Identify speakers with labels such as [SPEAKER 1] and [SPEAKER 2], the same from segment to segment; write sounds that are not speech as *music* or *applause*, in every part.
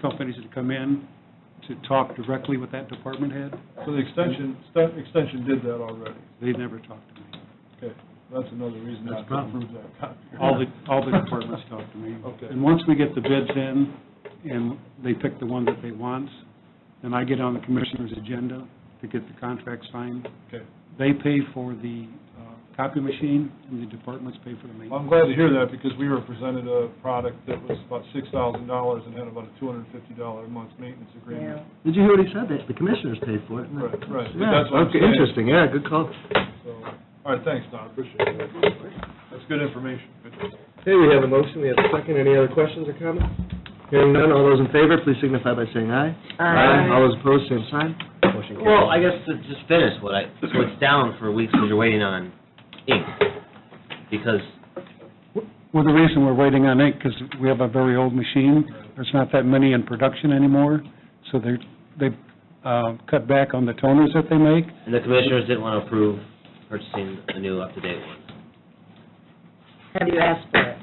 [SPEAKER 1] companies that come in to talk directly with that department head.
[SPEAKER 2] So the extension, st- extension did that already.
[SPEAKER 1] They never talk to me.
[SPEAKER 2] Okay, that's another reason not
[SPEAKER 1] That's
[SPEAKER 2] to
[SPEAKER 1] fine.
[SPEAKER 2] approve that copy.
[SPEAKER 1] All the, all the departments talk to me.
[SPEAKER 2] Okay.
[SPEAKER 1] And once we get the bids in and they pick the one that they want, then I get on the commissioner's agenda to get the contract signed.
[SPEAKER 2] Okay.
[SPEAKER 1] They pay for the uh, copy machine and the departments pay for the
[SPEAKER 2] Well,
[SPEAKER 1] maintenance.
[SPEAKER 2] I'm glad to hear that because we were presented a product that was about six thousand dollars and had about a two hundred and fifty dollar a month maintenance agreement.
[SPEAKER 3] Did you hear what he said? The- The commissioners paid for it.
[SPEAKER 2] Right, right.
[SPEAKER 3] Yeah,
[SPEAKER 2] That's what I'm
[SPEAKER 3] okay,
[SPEAKER 2] saying.
[SPEAKER 3] interesting, yeah, good call.
[SPEAKER 2] So, all right, thanks, Don, appreciate it. That's good information. Good.
[SPEAKER 3] Hey, we have a motion, we have a second, any other questions or comments? Hearing none, all those in favor, please signify by saying aye.
[SPEAKER 4] Um,
[SPEAKER 3] All those opposed, same sign. Motion carries.
[SPEAKER 5] Well, I guess to just finish what I, so it's down for weeks because you're waiting on ink. Because,
[SPEAKER 1] Well, the reason we're waiting on ink, because we have a very old machine, there's not that many in production anymore, so they're, they've uh, cut back on the toners that they make.
[SPEAKER 5] and the commissioners didn't want to approve purchasing the new up-to-date ones.
[SPEAKER 4] Have you asked for it?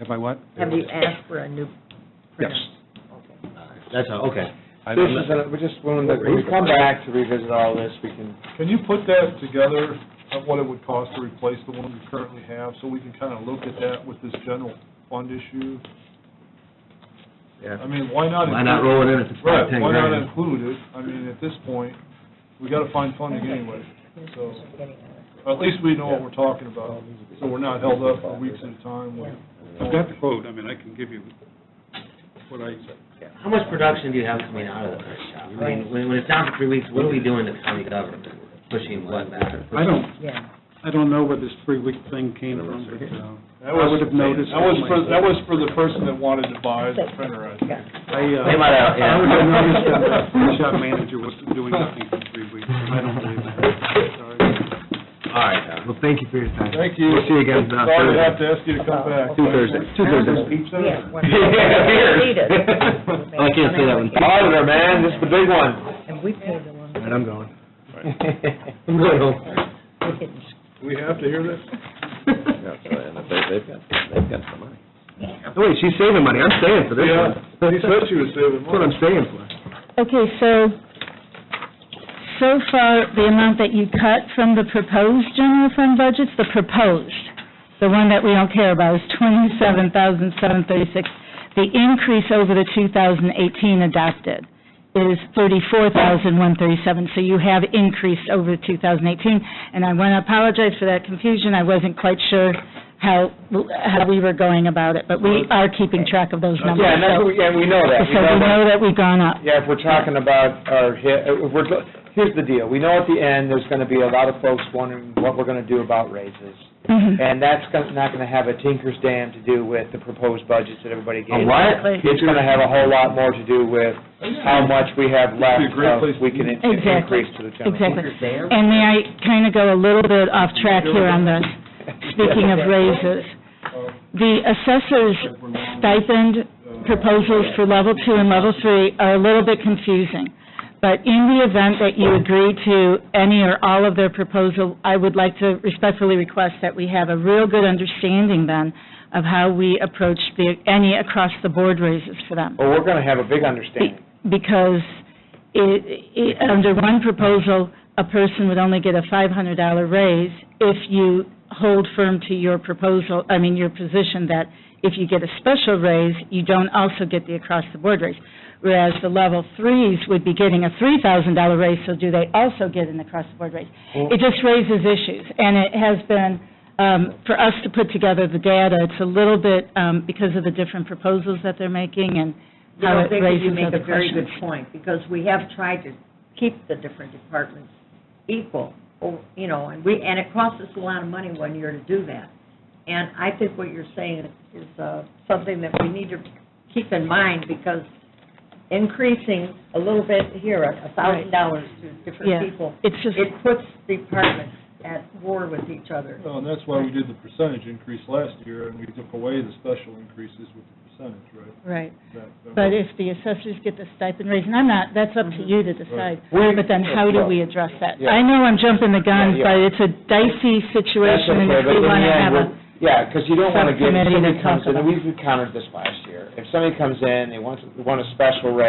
[SPEAKER 1] Have I what?
[SPEAKER 4] Have you asked for a new printer?
[SPEAKER 1] Yes.
[SPEAKER 4] Okay.
[SPEAKER 5] Uh, That's all, okay.
[SPEAKER 1] I-
[SPEAKER 6] This is,
[SPEAKER 3] uh,
[SPEAKER 6] a- we just wanted to, we come back to revisit all this, we can,
[SPEAKER 2] Can you put that together, of what it would cost to replace the one we currently have, so we can kind of look at that with this general fund issue?
[SPEAKER 3] Yeah.
[SPEAKER 2] I mean, why not?
[SPEAKER 3] Why not
[SPEAKER 2] include-
[SPEAKER 3] roll it in if it's not ten
[SPEAKER 2] Right, why not
[SPEAKER 3] grand?
[SPEAKER 2] include it? I mean, at this point, we got to find funding anyway, so,
[SPEAKER 4] Commissioners are getting on
[SPEAKER 2] at least we know what we're talking about, so we're not held up for weeks at a time with.
[SPEAKER 1] I've got the quote, I mean, I can give you what I,
[SPEAKER 5] How much production do you have coming out of the print shop? I mean, when, when it's down for three weeks, what are we doing to county government? Pushing what back?
[SPEAKER 1] I don't,
[SPEAKER 4] it. Yeah.
[SPEAKER 1] I don't know where this three-week thing came from, but uh, I would have noticed.
[SPEAKER 2] That was for, that was for the person that wanted to buy the printer, I think.
[SPEAKER 1] I, uh,
[SPEAKER 5] They might have- yeah.
[SPEAKER 1] I would have noticed
[SPEAKER 5] *laughs*
[SPEAKER 1] that
[SPEAKER 2] *laughs*
[SPEAKER 1] the print shop manager was doing nothing for three weeks, I don't believe that. Sorry.
[SPEAKER 5] All right, uh,
[SPEAKER 3] Well, thank you for your time.
[SPEAKER 2] Thank you.
[SPEAKER 3] We'll see you again, uh,
[SPEAKER 2] Sorry to
[SPEAKER 3] Thursday.
[SPEAKER 2] have to ask you to come back.
[SPEAKER 3] Two Thursdays. Two Thursdays.
[SPEAKER 4] Yeah, one-
[SPEAKER 6] Yeah.
[SPEAKER 4] Need it.
[SPEAKER 5] *laughs* I can't say that one.
[SPEAKER 6] auditor, man, this is the big one.
[SPEAKER 4] And we paid the one,
[SPEAKER 3] All right, I'm going. *laughs* I'm going home.
[SPEAKER 6] *laughs*
[SPEAKER 2] Do *laughs* we
[SPEAKER 4] we're getting
[SPEAKER 2] have to hear this?
[SPEAKER 6] They've got, they've got some money.
[SPEAKER 3] Oh, Wait, she's saving money, I'm staying for this
[SPEAKER 2] Yeah,
[SPEAKER 3] one.
[SPEAKER 2] he said she was saving
[SPEAKER 3] That's what I'm
[SPEAKER 2] money.
[SPEAKER 3] staying for.
[SPEAKER 7] Okay, so, so far, the amount that you cut from the proposed general fund budgets, the proposed, the one that we don't care about, is twenty-seven thousand seven thirty-six. The increase over the two thousand eighteen adopted is thirty-four thousand one thirty-seven, so you have increased over two thousand eighteen. And I want to apologize for that confusion, I wasn't quite sure how, how we were going about it, but we are keeping track of those numbers.
[SPEAKER 6] Yeah, and that's, what we- and we know that.
[SPEAKER 7] So we know that we've gone up.
[SPEAKER 6] Yeah, if we're talking about our hit, if we're, here's the deal, we know at the end, there's gonna be a lot of folks wondering what we're gonna do about raises.
[SPEAKER 7] Mhm.
[SPEAKER 6] And that's gonna- not gonna have a tinker's dam to do with the proposed budgets that everybody gave.
[SPEAKER 7] Exactly.
[SPEAKER 6] It's gonna have a whole lot more to do with how much we have left
[SPEAKER 2] Oh, It'd be a great place to-
[SPEAKER 6] of, we can in-
[SPEAKER 7] Exactly.
[SPEAKER 6] increase to the general.
[SPEAKER 7] Exactly. And may I kind of go a little bit off track here on this,
[SPEAKER 6] *laughs*
[SPEAKER 7] speaking of raises?
[SPEAKER 2] Um,
[SPEAKER 7] The assessor's stipend
[SPEAKER 2] uh,
[SPEAKER 7] proposals for level two and level three are a little bit confusing, but in the event that you agree to any or all of their proposal, I would like to respectfully request that we have a real good understanding then of how we approach the, any across-the-board raises for them
[SPEAKER 6] Well, we're gonna have a big understanding.
[SPEAKER 7] because it, it, under one proposal, a person would only get a $500 raise if you hold firm to your proposal, I mean, your position that if you get a special raise, you don't also get the across-the-board raise. Whereas the level threes would be getting a $3,000 raise, so do they also get an across-the-board raise? It just raises issues, and it has been, um, for us to put together the data, it's a little bit, um, because of the different proposals that they're making and
[SPEAKER 4] I
[SPEAKER 7] how
[SPEAKER 4] don't
[SPEAKER 7] it
[SPEAKER 4] think that you
[SPEAKER 7] raises
[SPEAKER 4] make
[SPEAKER 7] other
[SPEAKER 4] a very
[SPEAKER 7] questions.
[SPEAKER 4] good point, because we have tried to keep the different departments equal, or, you know, and we, and it costs us a lot of money one year to do that. And I think what you're saying is uh, something that we need to keep in mind, because increasing a little bit here, a thousand dollars to
[SPEAKER 7] Yeah.
[SPEAKER 4] different people,
[SPEAKER 7] It's just,
[SPEAKER 4] it puts departments at war with each other.
[SPEAKER 2] Well, and that's why we did the percentage increase last year, and we took away the special increases with the percentage, right?
[SPEAKER 7] right,
[SPEAKER 2] That- that
[SPEAKER 7] but
[SPEAKER 2] was-
[SPEAKER 7] if the assessors get the stipend raise, and I'm not, that's up to you to decide,
[SPEAKER 6] We-
[SPEAKER 7] but then how do we address that?
[SPEAKER 6] Mm-hmm. Yeah.
[SPEAKER 7] I know I'm jumping the gun,
[SPEAKER 6] Yeah, yeah.
[SPEAKER 7] but it's a dicey
[SPEAKER 6] That's
[SPEAKER 7] situation, and
[SPEAKER 6] okay,
[SPEAKER 7] if
[SPEAKER 6] but
[SPEAKER 7] we
[SPEAKER 6] in the
[SPEAKER 7] want to
[SPEAKER 6] end,
[SPEAKER 7] have a,
[SPEAKER 6] we're- Yeah, because you don't want to give, if
[SPEAKER 7] Subcommittee to
[SPEAKER 6] somebody comes
[SPEAKER 7] talk
[SPEAKER 6] in, and
[SPEAKER 7] about-
[SPEAKER 6] we've encountered this last year, if somebody comes in, they want, want a special rate,